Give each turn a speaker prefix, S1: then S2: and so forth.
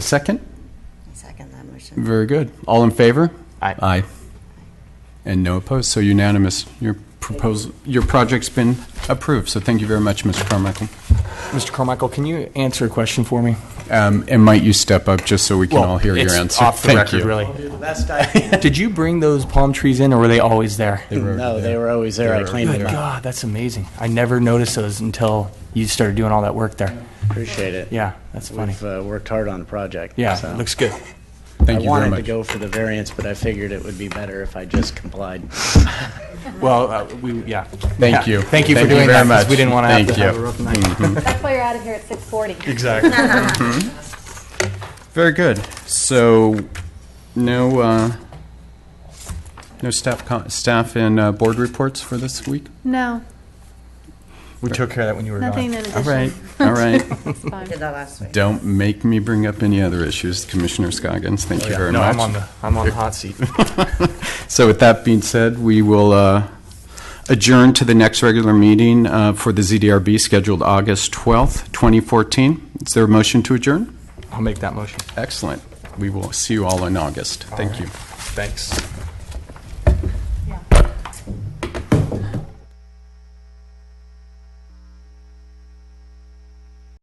S1: A second?
S2: Second that motion.
S1: Very good. All in favor?
S3: Aye.
S1: Aye. And no opposed, so unanimous. Your proposal, your project's been approved, so thank you very much, Mr. Carmichael.
S3: Mr. Carmichael, can you answer a question for me?
S1: Um, And might you step up, just so we can all hear your
S3: it's
S1: answer?
S3: off the
S1: Thank
S3: record,
S1: you.
S3: really.
S4: Best I can.
S3: Did you bring those palm trees in, or were they always there?
S4: No, they were always there. I cleaned
S3: Good
S4: them up.
S3: God, that's amazing. I never noticed those until you started doing all that work there.
S4: Appreciate it.
S3: Yeah, that's funny.
S4: We've uh, worked hard on the project. so.
S3: Yeah, looks good.
S1: Thank
S4: I
S1: you very
S4: wanted to
S1: much.
S4: go for the variance, but I figured it would be better if I just complied.
S3: Well, uh, we, yeah.
S1: Thank
S3: Yeah.
S1: you.
S3: Thank you for
S1: Thank you very
S3: doing that, because we
S1: much.
S3: didn't want to have
S1: Thank
S3: to have
S1: you.
S3: a rough night.
S5: That's why you're out of here at 6:40.
S3: Exactly.
S1: Very good. So, no, uh, no staff, co- staff and uh, board reports for this week?
S6: No,
S3: We took care of that when you were
S6: nothing
S3: gone.
S6: in addition.
S1: All right, all right.
S6: It's fine.
S2: Did that last week.
S1: Don't make me bring up any other issues, Commissioner Scoggins. Thank you very
S3: Oh, No,
S1: much.
S3: I'm on the, I'm on the hot seat.
S1: So with that being said, we will uh, adjourn to the next regular meeting uh, for the ZDRB scheduled August 12th, 2014. Is there a motion to adjourn?
S3: I'll make that motion.
S1: Excellent. We will see you all in August. Thank you.
S3: Thanks.